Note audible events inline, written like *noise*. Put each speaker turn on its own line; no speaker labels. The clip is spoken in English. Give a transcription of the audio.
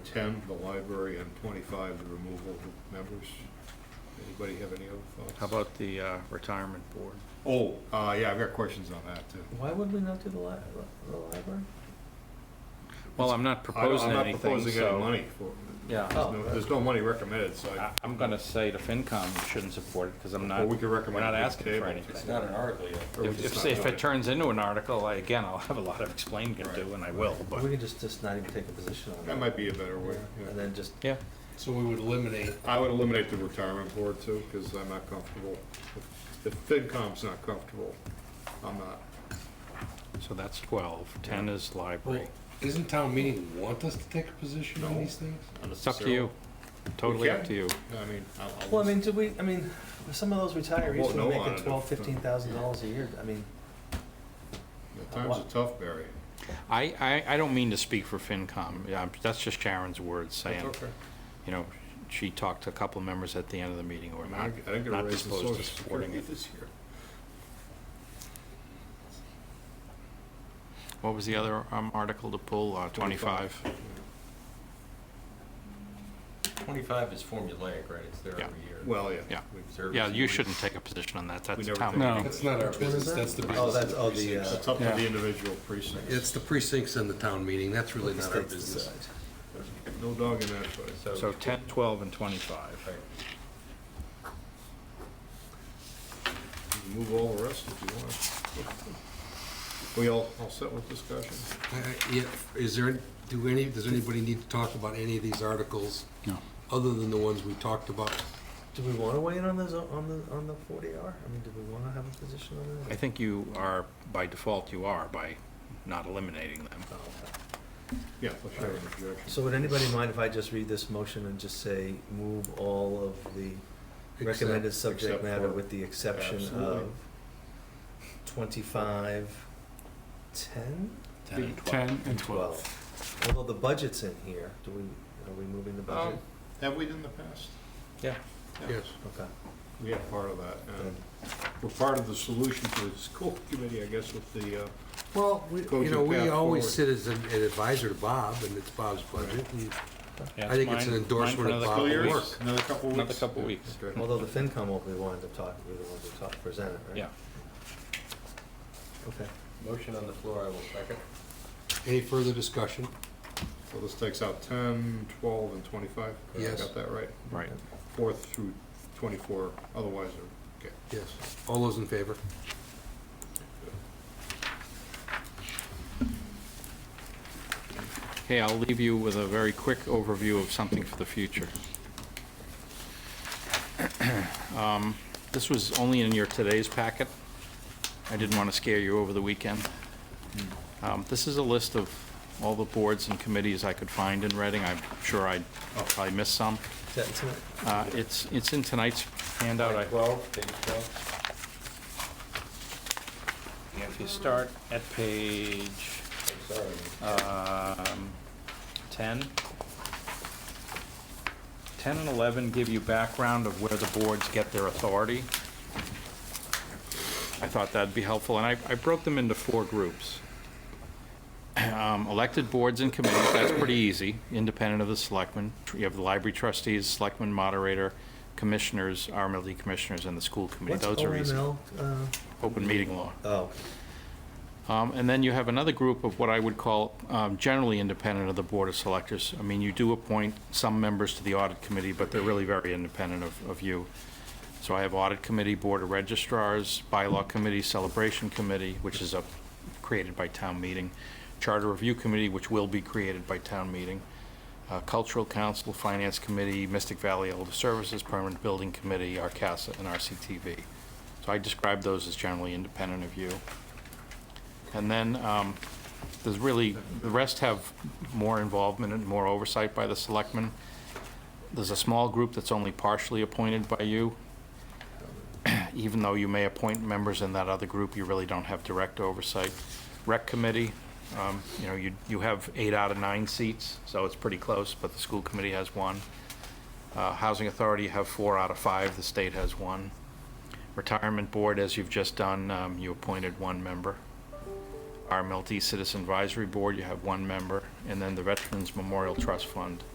ten, the library, and twenty-five, the removal of members. Anybody have any other thoughts?
How about the uh, retirement board?
Oh, uh, yeah, I've got questions on that too.
Why would we not do the li- the library?
Well, I'm not
I don't-
proposing
I'm not
anything,
proposing any
so.
money for,
Yeah,
Oh,
there's
uh,
no, there's no money recommended, so I,
Oh. I- I'm gonna say the FinCom shouldn't support it, because I'm not,
Well, we
we're
could recommend
not
it to
asking for
table.
anything.
It's
not an article yet.
or we
If,
just
if-
not
if
do
it turns into an article, I- again, I'll have a lot of explaining to do, and I will,
We
but,
can just, just not even take a position on that.
That might be a better way, yeah.
And then just,
yeah.
So we would eliminate,
I would eliminate the retirement board too, because I'm not comfortable. If FinCom's not comfortable, I'm not.
So that's 12. 10 is
well,
library.
isn't town meeting want us to take a position on
No.
these things?
It's up to you. Totally up
can.
to you.
I mean, I'll. I'll-
well, I mean, do we, I mean, some of those
Well,
retirees
no
were
on
making
it.
twelve, fifteen thousand dollars a year, I mean,
The times are tough, Barry.
I, I, I don't mean to speak for FinCom, Yeah, I'm- that's just Sharon's words
That's
saying,
okay.
you know, she talked to a couple of members at the end of the meeting who
I
are
mean, I
not,
didn't- I didn't get a
not
raise in
disposed
social
to supporting
security
it.
this year.
What was the other um, article to pull, Uh, 25?
Twenty-five is formulaic, right? It's there
Yeah.
every year.
Well, yeah.
Yeah.
We-
Service
Yeah, you
and-
shouldn't take a position on that, that's
never
town
take a
meeting.
That's not our
Which one is
business,
that?
that's the
Oh,
business.
that's-
of
oh, the,
precincts.
uh,
It's up to
Yeah.
the individual precincts.
It's the precincts and the town meeting, that's really
the
not our
states
business.
decide.
No dog in that fight.
So 10, 12, and 25.
Right.
Move all the rest if you want. We all, all set with discussion?
Uh, yeah, Is there, do any, does anybody need to talk about any of these articles,
No.
other than the ones we talked about?
Do we wanna weigh in on those, on the, on the forty R? I mean, do we wanna have a position on
I
that?
think you are, by default, you are, by not eliminating them.
Oh, okay.
Yeah, let's have an objection.
So would anybody mind if I just read this motion and just say, move all of the recommended subject
except
matter
for-
with the exception
Absolutely.
of twenty-five, ten?
Ten and
10 and
Twelve. Although the budget's in here, do we, are we moving the budget?
Um, Have we done the past?
Yeah.
Yes.
Okay.
We had part of that, and we're part of the solution to the school committee, I guess, with the, uh,
Well, we- you
Cogent
know, we
path
always
forward.
sit as an an advisor to Bob, and it's Bob's budget, and
Yeah,
I think it's
mine- mine
an
for
endorsement of
another
Bob
couple
Lawyers.
weeks.
work.
Another couple weeks?
Another couple weeks.
Okay.
Although the FinCom will be the ones to talk, be the ones to talk, present it, right?
Yeah.
Okay.
Motion on the floor, I will second.
Any further discussion?
So this takes out 10, 12, and 25?
Yes.
Got that right?
Right.
Fourth through 24, otherwise, they're- okay.
Yes. All those in favor?
Okay, I'll leave you with a very quick overview of something for the future. *clears throat* Um, This was only in your today's packet. I didn't want to scare you over the weekend. Um, This is a list of all the boards and committees I could find in Reading. I'm sure I I'll probably missed some.
Is that tonight?
Uh, It's it's in tonight's handout. I-
Twelve, page twelve.
If you start at page
I'm sorry.
Um, 10. 10 and 11 give you background of where the boards get their authority. I thought that'd be helpful, and I, I broke them into four groups. Um, Elected boards and committees, that's pretty easy, independent of the selectmen. You have the library trustees, selectmen moderator, commissioners, RMLD commissioners, and the school committee.
What's
Those are easy.
OML? uh,
Open meeting law.
Oh,
Um, And then you have another group of what I would call um, generally independent of the Board of Selectors. I mean, you do appoint some members to the Audit Committee, but they're really very independent of of you. So I have Audit Committee, Board of Registrars, Bylaw Committee, Celebration Committee, which is up, created by town meeting, Charter Review Committee, which will be created by town meeting, uh, Cultural Council, Finance Committee, Mystic Valley Elder Services, Permanent Building Committee, RCASA, and RCTV. So I describe those as generally independent of you. And then, um, there's really, the rest have more involvement and more oversight by the selectmen. There's a small group that's only partially appointed by you. *clears throat* Even though you may appoint members in that other group, you really don't have direct oversight. Rec committee, um, you know, you, you have eight out of nine seats, so it's pretty close, but the school committee has one. Uh, Housing authority, you have four out of five, the state has one. Retirement board, as you've just done, um, you appointed one member. RMLD Citizen Advisory Board, you have one member, and then the Veterans Memorial Trust Fund,